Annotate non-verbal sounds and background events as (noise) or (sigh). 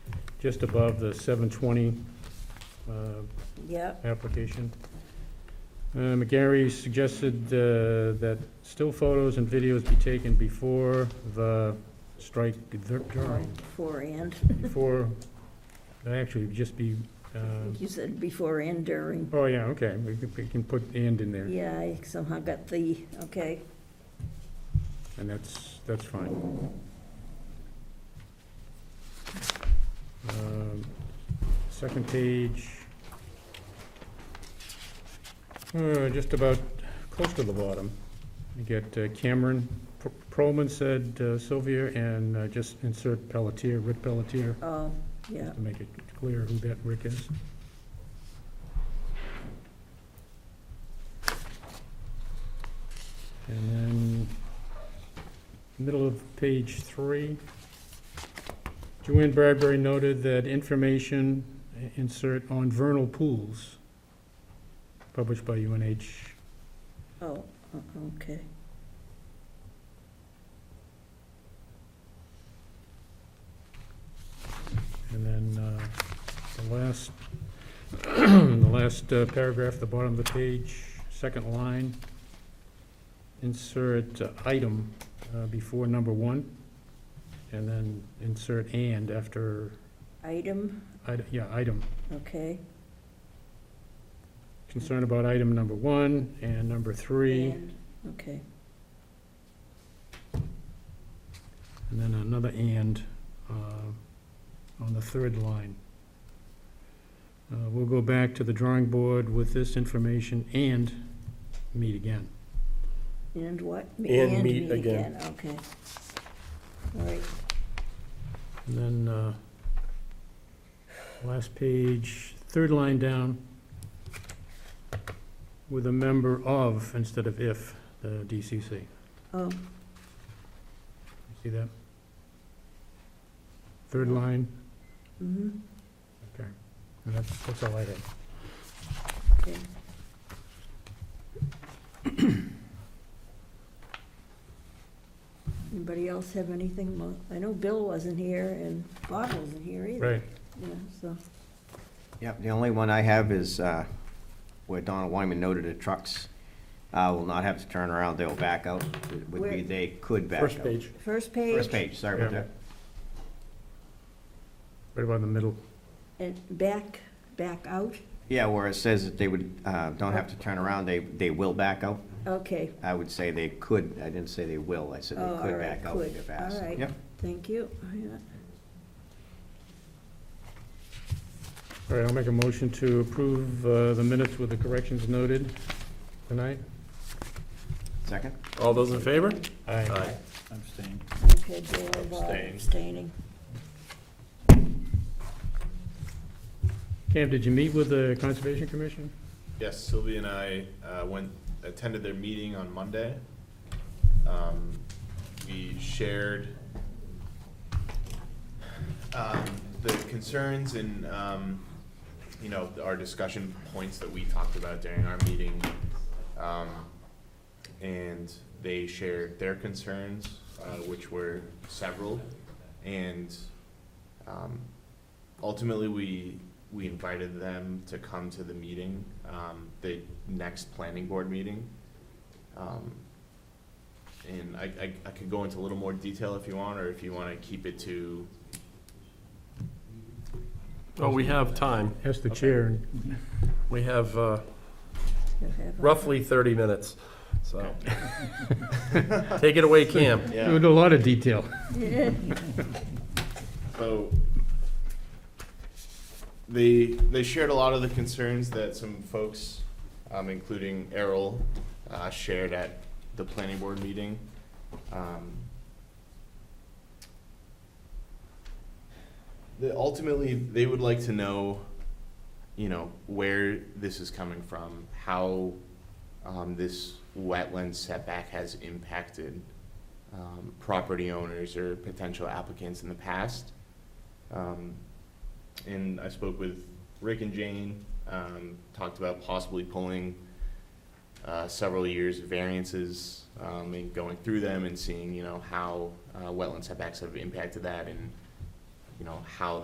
just above the 720 uh, Yep, application. Uh, McGarry suggested uh, that still photos and videos be taken before the strike, during, before and, before, actually, just be, uh, you said before and during. oh, yeah, okay, we can- we can put "and" in there. Yeah, I somehow got the, okay. And that's, that's fine. Um, Second page. Uh, Just about close to the bottom. You get uh, Cameron, P- Proman said uh, Sylvia, and uh, just insert Pelletier, Rick Pelletier, Oh, yeah, to make it clear who that Rick is. And then, middle of page three, Joanne Bradbury noted that information, i- insert on vernal pools, published by UNH. oh, o- okay. And then uh, the last, (clears throat) the last uh, paragraph, the bottom of the page, second line, insert uh, item uh, before number one, and then insert and after, Item, ide- yeah, item. okay. Concern about item number one and number three, And, Okay, and then another and uh, on the third line. Uh, We'll go back to the drawing board with this information and meet again. and what? And meet again. Okay. All right, And then, uh, last page, third line down, with a member of instead of if, the DCC. You oh, See that? Third line, mhm, and that's, that's all I had. okay. (coughs) Anybody else have anything? mo- I know Bill wasn't here and Bob wasn't here either. Right, Yeah, so, Yep, the only one I have is uh, where Donald Wyman noted the trucks uh, will not have to turn around, they'll back out. It would Where? be they could back out. First page. first page. First page, sorry about Yeah. that. right about in the middle. And back, back out? Yeah, where it says that they would, uh, don't have to turn around, they, they will back out. Okay, I would say they could, I didn't say they will, I said Oh, they all could right, back out could. if asked. All right. Yep. thank you. Yeah. All right, I'll make a motion to approve uh, the minutes with the corrections noted tonight. Second? All those in favor? Aye. Abstain. Okay, Bill, Bob Abstain. abstaining. Cam, did you meet with the Conservation Commission? Yes, Sylvia and I uh, went, attended their meeting on Monday. Um, We shared um, the concerns and, um, you know, our discussion points that we talked about during our meeting. Um, And they shared their concerns, uh, which were several. And um, ultimately, we, we invited them to come to the meeting, um, the next planning board meeting. Um, And I, I, I could go into a little more detail if you want, or if you wanna keep it to, Oh, we have time. Ask the chair and We have uh, You have a- roughly 30 minutes, so. Okay. Take it away, Cam. There was a lot of detail. (laughs) So they they shared a lot of the concerns that some folks, um, including Errol, uh, shared at the planning board meeting. Um, the, ultimately, they would like to know, you know, where this is coming from, how um, this wetland setback has impacted um, property owners or potential applicants in the past. Um, and I spoke with Rick and Jane, um, talked about possibly pulling, uh, several years of variances, um, and going through them and seeing, you know, how, uh, wetland setbacks have impacted that and, you know, how